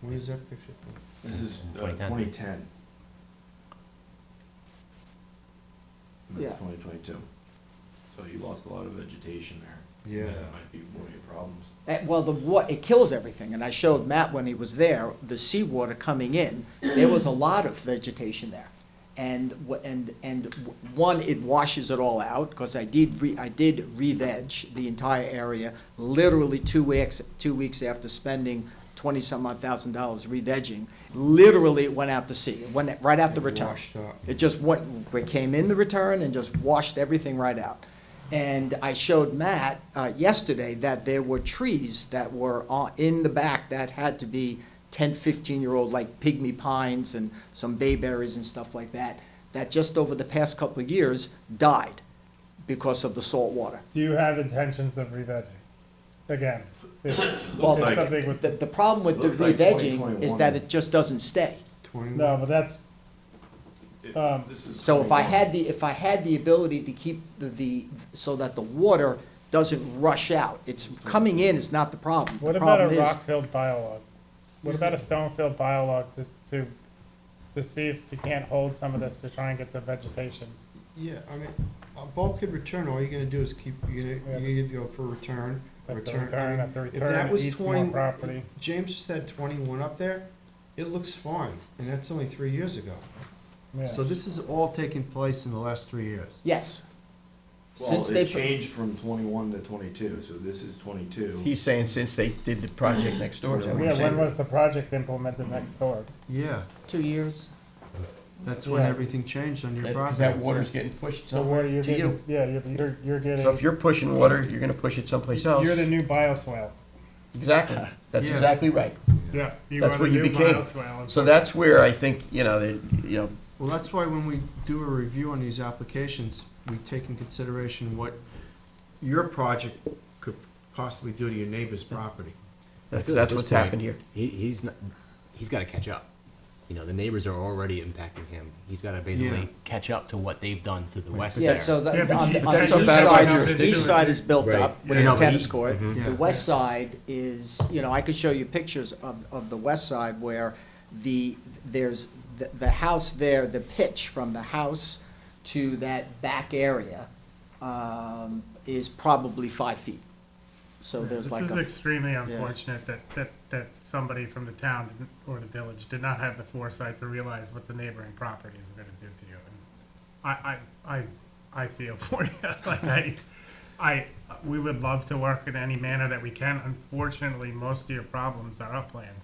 Where Oh. is that picture from? This is uh, 2010. 2010. And Yeah. That's 2022. So you lost a lot of vegetation there. Yeah. That might be one of your problems. Eh, Well, the wa, it kills everything, and I showed Matt when he was there, the seawater coming in, there was a lot of vegetation there. And, wha- and, and w- one, it washes it all out, because I did re, I did re-veg the entire area, literally two weeks, two weeks after spending twenty-some odd thousand dollars re-vegging, literally it went out to sea, it went right out the It return. washed out. It just went, it came in the return and just washed everything right out. And I showed Matt uh, yesterday that there were trees that were on- in the back that had to be 10, 15-year-old, like pygmy pines and some bayberries and stuff like that, that just over the past couple of years died because of the salt water. Do you have intentions of re-vegging? Again, if Well, there's like- something with, The, the problem with the Looks like re-vegging is that 2021. it just doesn't stay. Twenty. no, but that's, It- Um, this is So if 21. I had the, if I had the ability to keep the, the, so that the water doesn't rush out, it's coming in is not the problem. what The about a problem is, rock-filled biolog? What about a stone-filled biolog to, to, to see if you can't hold some of this to try and get some vegetation? Yeah, I mean, a bulkhead return, all you're gonna do is keep, you're gonna, you're gonna go for return, That's a return. I return mean, after if return, that it was eats more 20 property. James just had twenty-one up there, it looks fine, and that's only three years ago. Yeah. So this is all taking place in the last three years. yes. Well, Since they, it put- changed from 21 to 22, so this is 22. He's saying since they did the project next door, is that what you're Yeah, when saying? was the project implemented next door? Yeah, two years, that's when Yeah. everything changed on your That- property. 'cause that water's getting pushed So where somewhere you're to getting, you. yeah, you're, you're, you're So if getting, you're pushing water, you're gonna push it someplace else. you're the new bioswale. Exactly, that's Yeah. exactly right. Yeah. You That's are the what you new became. bioswale. So that's where I think, you know, that, you know, Well, that's why when we do a review on these applications, we take in consideration what your project could possibly do to your neighbor's property. that's, that's At what's this point, happened here. He, he's not, he's gotta catch up. You know, the neighbors are already impacting him. He's gotta Yeah. basically catch up to what they've done to the west yeah, there. so Yeah, the, but on, geez, the- on that's the a east bad side, idea. the east side is built Right. up with Yeah. the No, but tennis east- court. mhm. Yeah. The west side is, you know, I could show you pictures of, of the west side where the, there's, the, the house there, the pitch from the house to that back area, um, is probably five feet. So there's like This is a, extremely unfortunate that, that, that somebody from the town didn't- or the village did not have the foresight to realize what the neighboring properties were gonna do to you. And I, I, I, I feel for you, like I, I, we would love to work in any manner that we can, unfortunately, most of your problems are upland,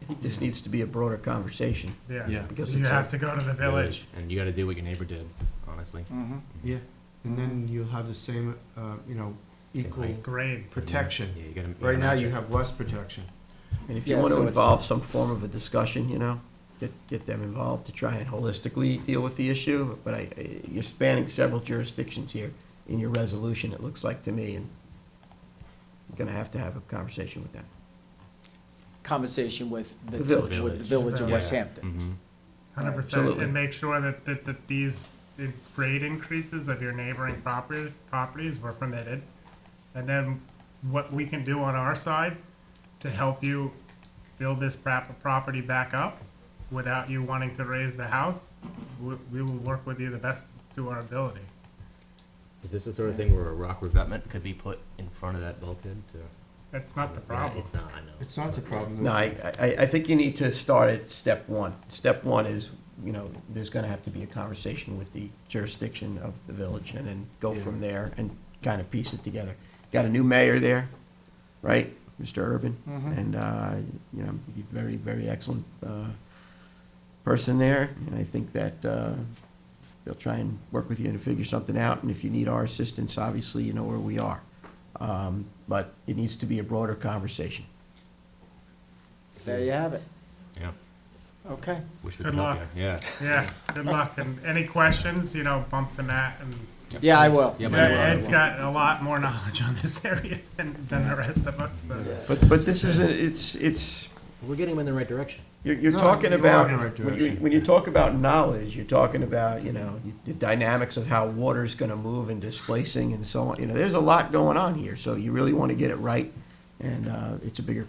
I think this needs to be a broader conversation. yeah. Yeah. Because You it's a- have to go to the village. And you gotta do what your neighbor did, honestly. Mm. Yeah, and then you'll have the same, uh, you know, equal Grade. protection. Yeah, you gotta. gotta Right now, match you it. have less protection. And if you Yeah, want so to it's- involve some form of a discussion, you know, get, get them involved to try and holistically deal with the issue. But I, I- you're spanning several jurisdictions here in your resolution, it looks like to me, and you're gonna have to have a conversation with them. conversation with the, The village. with the village of Yeah. West Hampton. Mhm. Hundred percent, Absolutely. and make sure that, that, that these in- grade increases of your neighboring properties, properties were permitted. And then what we can do on our side to help you build this prop- property back up without you wanting to raise the house, we, we will work with you the best to our ability. Is this the sort of thing where a rock revetment could be put in front of that bulkhead to? That's not the Yeah, problem. It's not, I know. It's not the problem. No, I, I, I think you need to start at step one. Step one is, you know, there's gonna have to be a conversation with the jurisdiction of the village and then go from there and kind of piece it together. Got a new mayor there, right, Mr. Urban? And, uh, you know, he's a very, very excellent, uh, person there. And I think that, uh, they'll try and work with you to figure something out. And if you need our assistance, obviously, you know where we are. Um, but it needs to be a broader conversation. There you have it. Mm-hmm. Yeah, Okay. wish we Good could help luck. you, yeah. Yeah, good luck, and any questions, you know, bump to Matt, and Yeah, I will. Yeah, but I will, I Ed's will. got a lot more knowledge on this area than, than the rest of us, so. But, but this is, a- it's, it's, We're getting them in the right direction. you're, you're No, talking you are about, in the right when you, direction. when you talk about knowledge, you're talking about, you know, the dynamics of how water's gonna move and displacing and so on, you know, there's a lot going on here, so you really wanna get it right, and, uh, it's a bigger